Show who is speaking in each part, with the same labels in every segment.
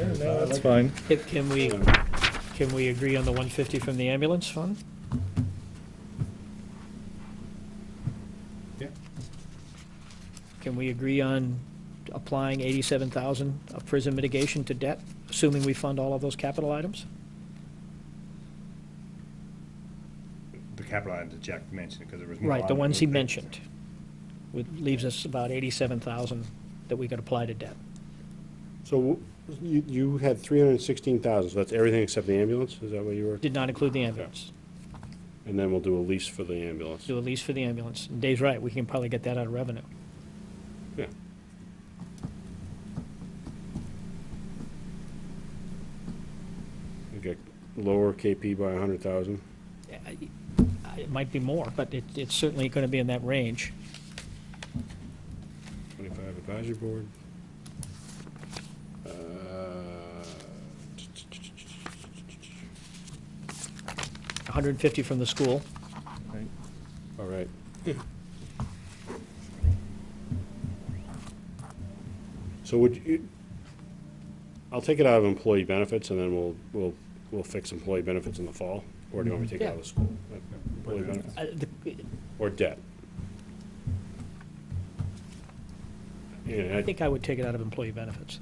Speaker 1: Yeah, that's fine.
Speaker 2: Can- Can we, can we agree on the 150 from the ambulance fund?
Speaker 3: Yeah.
Speaker 2: Can we agree on applying 87,000 of prison mitigation to debt, assuming we fund all of those capital items?
Speaker 3: The capital items that Jack mentioned, because there was more.
Speaker 2: Right, the
Speaker 3: on it.
Speaker 2: ones he mentioned. Which leaves us about 87,000 that we could apply to debt.
Speaker 4: So w- you, you had three hundred and sixteen thousand, so that's everything except the ambulance, is that what you were?
Speaker 2: Did not include the ambulance.
Speaker 4: And then we'll do a lease for the ambulance.
Speaker 2: Do a lease for the ambulance. And Dave's right, we can probably get that out of revenue.
Speaker 4: Yeah. We get lower KP by a hundred thousand.
Speaker 2: I- It might be more, but it, it's certainly going to be in that range.
Speaker 4: Twenty-five advisory board. Uh,
Speaker 2: hundred and fifty from the school,
Speaker 4: All right. So would you, I'll take it out of employee benefits and then we'll, we'll, we'll fix employee benefits in the fall? Or do you want me to take it out of the school? Uh, employee benefits?
Speaker 2: uh, the-
Speaker 4: Or debt? Yeah,
Speaker 2: I
Speaker 4: I-
Speaker 2: think I would take it out of employee benefits.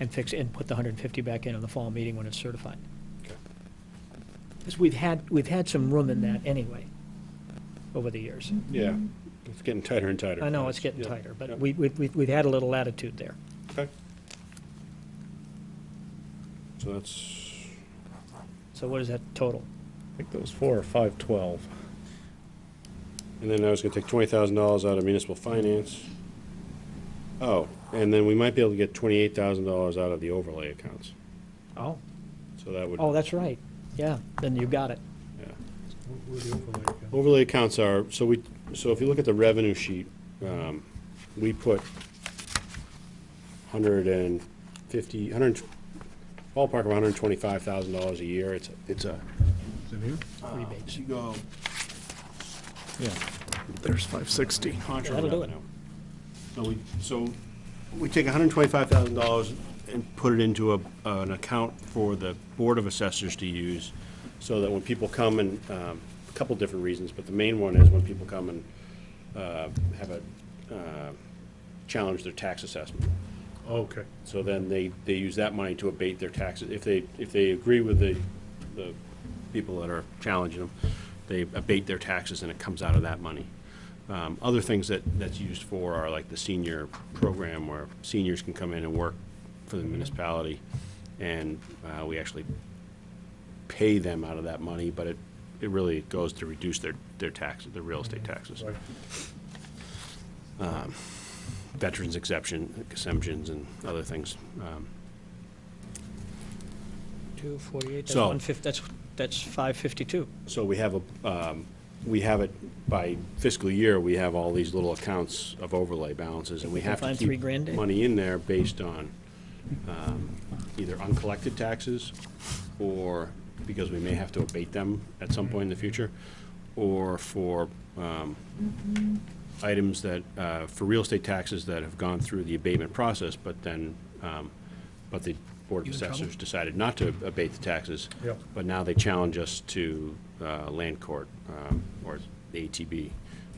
Speaker 2: And fix, and put the hundred and fifty back in on the fall meeting when it's certified.
Speaker 4: Okay.
Speaker 2: Because we've had, we've had some room in that anyway, over the years.
Speaker 4: yeah, it's getting tighter and tighter.
Speaker 2: I know it's getting
Speaker 4: Yeah,
Speaker 2: tighter,
Speaker 4: yeah.
Speaker 2: but we, we, we- we've had a little latitude there.
Speaker 4: Okay. So that's,
Speaker 2: So what is that total?
Speaker 1: I think those four are five twelve.
Speaker 4: And then I was gonna take twenty thousand dollars out of municipal finance. Oh, and then we might be able to get twenty-eight thousand dollars out of the overlay accounts,
Speaker 2: Oh,
Speaker 4: so that would.
Speaker 2: oh, that's right, yeah, then you got it.
Speaker 4: yeah.
Speaker 3: Where- where the overlay account?
Speaker 4: Overlay accounts are, so we, so if you look at the revenue sheet, um, we put hundred and fifty, hundred, and tw- ballpark of hundred and twenty-five thousand dollars a year, it's, it's a.
Speaker 3: Is it here?
Speaker 4: Ah.
Speaker 2: Rebates.
Speaker 4: You go.
Speaker 1: Yeah. There's five sixty.
Speaker 4: contra
Speaker 2: That'll do it.
Speaker 4: revenue. So we, so we take hundred and twenty-five thousand dollars and put it into a, an account for the Board of Assessors to use, so that when people come and, um, a couple different reasons, but the main one is when people come and, uh, have a, uh, challenge their tax assessment.
Speaker 3: Oh, Okay.
Speaker 4: So then they, they use that money to abate their taxes. If they, if they agree with the, the people that are challenging them, they abate their taxes and it comes out of that money. Um, other things that, that's used for are like the senior program where seniors can come in and work for the municipality. And, uh, we actually pay them out of that money, but it, it really goes to reduce their, their taxes, their real estate taxes.
Speaker 3: Right.
Speaker 4: Veterans exception, exemptions and other things. Um,
Speaker 2: Two forty-eight, that's
Speaker 4: So-
Speaker 2: one fifty, that's, that's five fifty-two.
Speaker 4: So we have a, um, we have it, by fiscal year, we have all these little accounts of overlay balances, and we
Speaker 2: we can
Speaker 4: have to
Speaker 2: find three
Speaker 4: keep
Speaker 2: grand, Dave?
Speaker 4: money in there based on um, either uncollected taxes, or because we may have to abate them at some point in the future, or for um, items that, uh, for real estate taxes that have gone through the abatement process, but then, um, but the Board of
Speaker 2: You in trouble?
Speaker 4: Assessors decided not to abate the taxes.
Speaker 3: Yep.
Speaker 4: But now they challenge us to uh, land court um, or the ATB.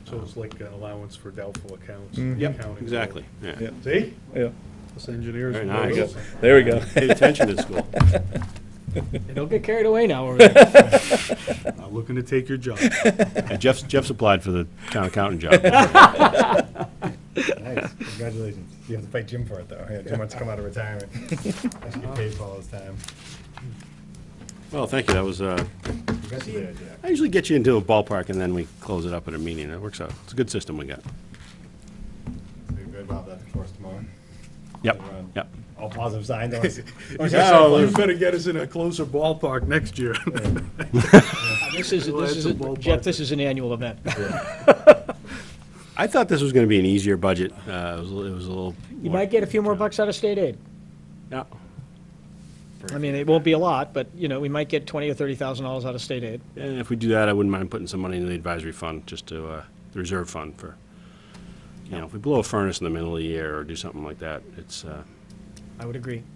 Speaker 3: So it's like an allowance for doubtful accounts.
Speaker 4: Yep,
Speaker 5: Mm-hmm.
Speaker 3: accounting.
Speaker 4: exactly, yeah.
Speaker 1: Yeah.
Speaker 3: See?
Speaker 1: Yeah,
Speaker 3: Us engineers.
Speaker 4: Very nice.
Speaker 1: there we go.
Speaker 4: Paid attention to school.
Speaker 2: Don't get carried away now over there.
Speaker 3: I'm Looking to take your job.
Speaker 4: Yeah, Jeff's, Jeff's applied for the town accountant job.
Speaker 5: Nice, congratulations. You have to fight Jim for it, though. Yeah, Jim wants to come out of retirement. I should get paid for all his time.
Speaker 4: Well, thank you, that was, uh,
Speaker 5: You got the idea.
Speaker 4: I usually get you into a ballpark and then we close it up at a meeting. It works out. It's a good system we got.
Speaker 5: So you're good, Bob, that's for us tomorrow.
Speaker 4: Yep,
Speaker 5: We're on
Speaker 4: yep.
Speaker 5: All positive signs. Oh, I wanna see- I wanna see
Speaker 3: Yeah,
Speaker 5: ourselves-
Speaker 3: You better get us in a closer ballpark next year.
Speaker 2: This is,
Speaker 3: Well,
Speaker 2: this
Speaker 3: that's
Speaker 2: is,
Speaker 3: a
Speaker 2: a-
Speaker 3: ballpark.
Speaker 2: Jeff, this is an annual event.
Speaker 4: I thought this was gonna be an easier budget. Uh, it was, a li- it was a little.
Speaker 2: You
Speaker 4: more-
Speaker 2: might get a few more bucks out of state aid.
Speaker 4: Yeah.
Speaker 2: I mean, it won't be a lot, but, you know, we might get twenty or thirty thousand dollars out of state aid.
Speaker 4: And if we do that, I wouldn't mind putting some money into the advisory fund, just to, uh, the reserve fund for, you know, if we blow a furnace in the middle of the year or do something like that, it's, uh,
Speaker 2: I would agree.